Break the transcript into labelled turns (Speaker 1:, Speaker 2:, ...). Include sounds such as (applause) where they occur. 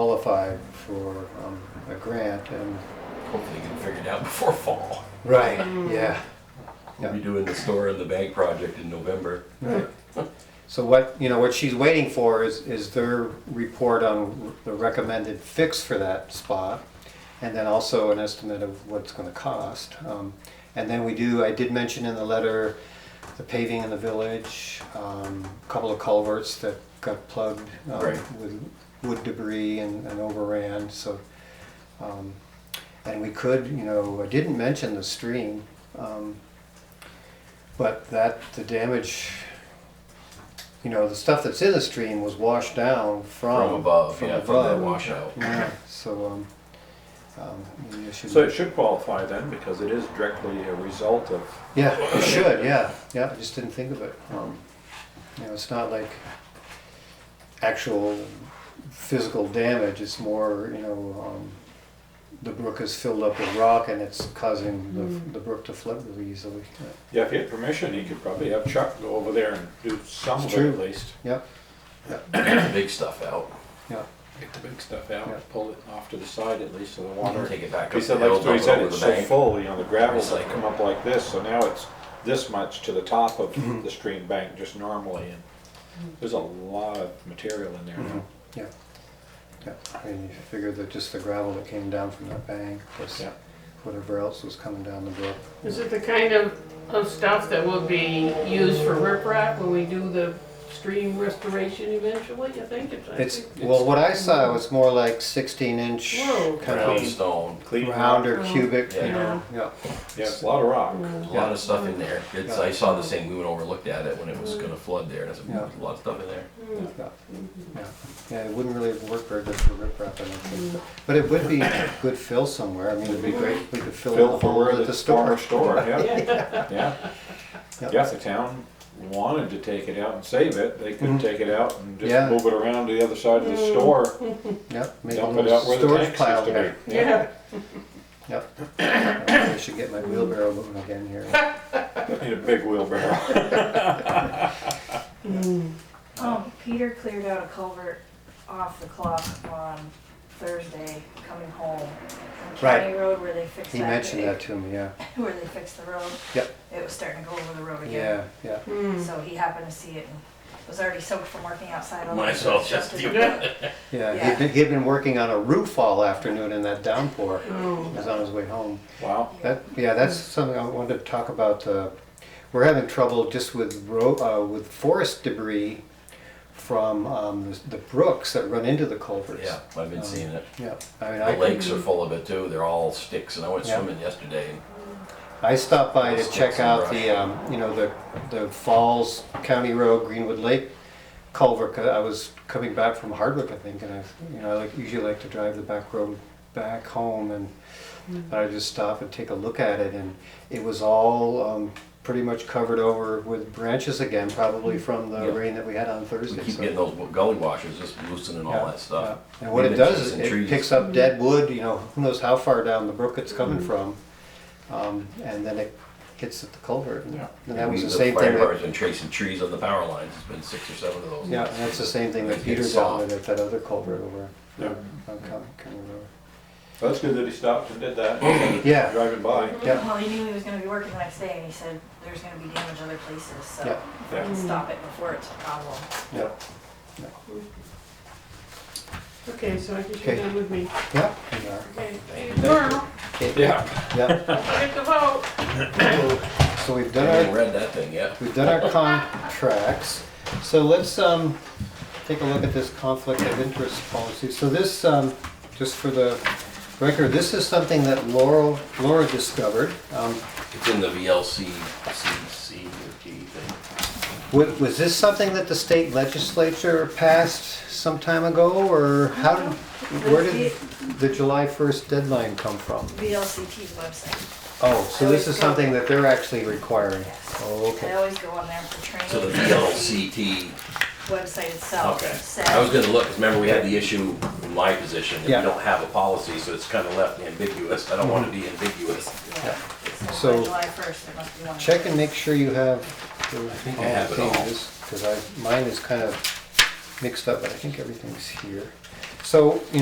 Speaker 1: qualified for um, a grant and.
Speaker 2: Hopefully you can figure it out (laughs) before fall.
Speaker 1: Right. Yeah.
Speaker 2: We'll be doing the store and the bank project in November.
Speaker 1: Right. So what, you know, what she's waiting for is, is their report on the recommended fix for that spot, and then also an estimate of what it's gonna cost. Um, And then we do, I did mention in the letter, the paving in the village, um, a couple of culverts that got plugged um,
Speaker 2: Right.
Speaker 1: with wood debris and and overran, so. um, And we could, you know, I didn't mention the stream, um, but that, the damage, you know, the stuff that's in the stream was washed down from.
Speaker 2: From above,
Speaker 1: Um, from
Speaker 2: yeah, from that
Speaker 1: above.
Speaker 2: washout. (clears throat)
Speaker 1: Yeah, so, um, um, maybe I should-
Speaker 3: So it should qualify then, because it is directly a result of,
Speaker 1: Yeah, it should, yeah, yeah, I just didn't think of it. Um, You know, it's not like actual physical damage, it's more, you know, um, the brook is filled up with rock and it's causing the, the brook to flood really easily.
Speaker 3: yeah, if he had permission, he could probably have Chuck go over there and do some of
Speaker 1: It's
Speaker 3: it
Speaker 1: true.
Speaker 3: at least.
Speaker 1: Yeah,
Speaker 2: Get the big stuff out.
Speaker 1: yeah,
Speaker 3: Get the big stuff
Speaker 1: Yeah.
Speaker 3: out, pull it off to the side at least so the water.
Speaker 2: Take it back
Speaker 3: He
Speaker 2: up the
Speaker 3: said,
Speaker 2: hill,
Speaker 3: like
Speaker 2: dump
Speaker 3: Stuart
Speaker 2: it
Speaker 3: said,
Speaker 2: over
Speaker 3: it's
Speaker 2: the
Speaker 3: so
Speaker 2: bank.
Speaker 3: full, you know, the gravel's
Speaker 2: Recycle.
Speaker 3: come up like this, so now it's this much to the top of the stream bank just normally. and There's a lot of material in there now.
Speaker 1: yeah. Yeah, I mean, you figure that just the gravel that came down from that bank, plus
Speaker 3: Yeah.
Speaker 1: whatever else was coming down the brook.
Speaker 4: Is it the kind of, of stuff that will be used for riprap when we do the stream restoration eventually, I think it's. I
Speaker 1: It's,
Speaker 4: think-
Speaker 1: well, what I saw was more like sixteen inch
Speaker 4: Whoa.
Speaker 1: kind
Speaker 2: Brown
Speaker 1: of
Speaker 2: stone.
Speaker 3: Clean
Speaker 1: round
Speaker 3: rock.
Speaker 1: or cubic, you
Speaker 2: Yeah.
Speaker 1: know, yeah.
Speaker 3: Yeah, it's a lot of rock.
Speaker 2: A lot of stuff in there. It's,
Speaker 1: Yeah.
Speaker 2: I saw the thing, we went over, looked at it when it was gonna flood there, there's
Speaker 1: Yeah.
Speaker 2: a lot of stuff in there.
Speaker 1: Yeah, Yeah. yeah, it wouldn't really work very good for riprap, I don't think, but- but it would be a good fill somewhere, I mean, it'd be great, if we could fill in the
Speaker 3: Fill for
Speaker 1: hole
Speaker 3: where
Speaker 1: at
Speaker 3: the
Speaker 1: the
Speaker 3: store,
Speaker 1: store.
Speaker 3: store, yeah,
Speaker 4: Yeah,
Speaker 3: yeah.
Speaker 1: Yeah.
Speaker 3: Yeah, if the town wanted to take it out and save it, they could
Speaker 1: Mhm.
Speaker 3: take it out and
Speaker 1: Yeah.
Speaker 3: just move it around to the other side of the store,
Speaker 1: Yeah, make a
Speaker 3: dump it
Speaker 1: little
Speaker 3: out where the
Speaker 1: storage
Speaker 3: tanks
Speaker 1: pile
Speaker 3: used
Speaker 1: there.
Speaker 3: to be.
Speaker 4: yeah.
Speaker 1: Yep. (coughs) I should get my wheelbarrow moving again here.
Speaker 3: Need a big wheelbarrow.
Speaker 5: Um, Peter cleared out a culvert off the clock on Thursday, coming home. from County Road where they fixed that.
Speaker 1: He mentioned that
Speaker 5: big-
Speaker 1: to me, yeah,
Speaker 5: (laughs) Where they fixed the road,
Speaker 1: yep,
Speaker 5: it was starting to go over the road
Speaker 1: yeah,
Speaker 5: again.
Speaker 1: yeah.
Speaker 5: So he happened to see it and it was already soaked from working outside all day.
Speaker 2: Might as well just do
Speaker 5: (laughs) it.
Speaker 1: Yeah,
Speaker 5: Yeah.
Speaker 1: He'd, been, he'd been working on a roof all afternoon in that downpour.
Speaker 4: Oh,
Speaker 1: He was on his way home.
Speaker 3: Wow,
Speaker 1: That, yeah, that's something I wanted to talk about. Uh, we're having trouble just with ro- uh, with forest debris from um, the, the brooks that run into the culverts.
Speaker 2: Yeah, I've been seeing it.
Speaker 1: Yeah, I mean,
Speaker 2: The
Speaker 1: I,
Speaker 2: lakes are full of it too, they're all sticks, and I went
Speaker 1: Yeah.
Speaker 2: swimming yesterday, and
Speaker 1: I stopped by to
Speaker 2: Sticks
Speaker 1: check
Speaker 2: and
Speaker 1: out
Speaker 2: brush.
Speaker 1: the, um, you know, the, the Falls County Road, Greenwood Lake culvert. 'cause I was coming back from Hardwick, I think, and I, you know, I like, usually like to drive the back road back home and I just stop and take a look at it and it was all, um, pretty much covered over with branches again, probably from the
Speaker 2: Mm. Yeah.
Speaker 1: rain that we had on
Speaker 2: we
Speaker 1: Thursday.
Speaker 2: keep
Speaker 1: so-
Speaker 2: getting those gully washers, just loosening all
Speaker 1: Yeah,
Speaker 2: that stuff.
Speaker 1: yeah. And what it
Speaker 2: Leaves
Speaker 1: does is
Speaker 2: and
Speaker 1: it
Speaker 2: trees.
Speaker 1: picks up dead wood, you know, who knows how far down the brook it's
Speaker 3: Mm-hmm.
Speaker 1: coming from. Um, and then it hits at the culvert. And
Speaker 3: Yeah.
Speaker 1: and that was
Speaker 2: We-
Speaker 1: the same
Speaker 2: Fire
Speaker 1: thing
Speaker 2: department's
Speaker 1: that,
Speaker 2: been tracing trees on the power lines, there's been six or seven of those.
Speaker 1: yeah, and that's the same thing that
Speaker 2: It
Speaker 1: Peter
Speaker 2: gets
Speaker 1: dealt
Speaker 2: soft.
Speaker 1: with at that other culvert over. Um,
Speaker 3: Yeah.
Speaker 1: on County County Road.
Speaker 3: Well, that's good that he stopped and did that, instead of
Speaker 1: uh, Yeah.
Speaker 3: driving by.
Speaker 1: Yeah.
Speaker 5: Well, he knew he was gonna be working the next day and he said, there's gonna be damage other places, so
Speaker 1: Yeah.
Speaker 5: if I can stop it before it's a problem.
Speaker 1: Yeah,
Speaker 4: Okay, so I guess
Speaker 1: Okay.
Speaker 4: you're done with me.
Speaker 1: yeah, we are.
Speaker 4: Okay, thank you. Well,
Speaker 1: Okay,
Speaker 3: Yeah,
Speaker 1: Yeah, (coughs)
Speaker 4: don't forget to vote.
Speaker 1: so we've
Speaker 2: I
Speaker 1: done
Speaker 2: haven't
Speaker 1: our,
Speaker 2: read that thing yet.
Speaker 1: we've done our contracts. So let's, um, take a look at this conflict of interest policy. So this, um, just for the record, this is something that Laurel, Laura discovered. Um,
Speaker 2: It's in the VLC, CC, or G thing.
Speaker 1: Was, was this something that the state legislature passed some time ago, or how did, where did the July 1st deadline come from?
Speaker 5: VLCT's website,
Speaker 1: Oh, so this is something that they're actually requiring?
Speaker 5: yes.
Speaker 1: Oh,
Speaker 5: I
Speaker 1: okay.
Speaker 5: always go on there for training.
Speaker 2: So the VLCT
Speaker 5: Website itself
Speaker 2: Okay,
Speaker 5: says.
Speaker 2: I was gonna look, because remember, we had the issue in my position, that we
Speaker 1: Yeah.
Speaker 2: don't have a policy, so it's kind of left ambiguous, I don't want to be ambiguous.
Speaker 5: Yeah.
Speaker 1: So-
Speaker 5: by July first, there must be one.
Speaker 1: Check and make sure you have the-
Speaker 2: think I
Speaker 1: all
Speaker 2: have
Speaker 1: the
Speaker 2: it all.
Speaker 1: pages, because I, mine is kind of mixed up, but I think everything's here. So, you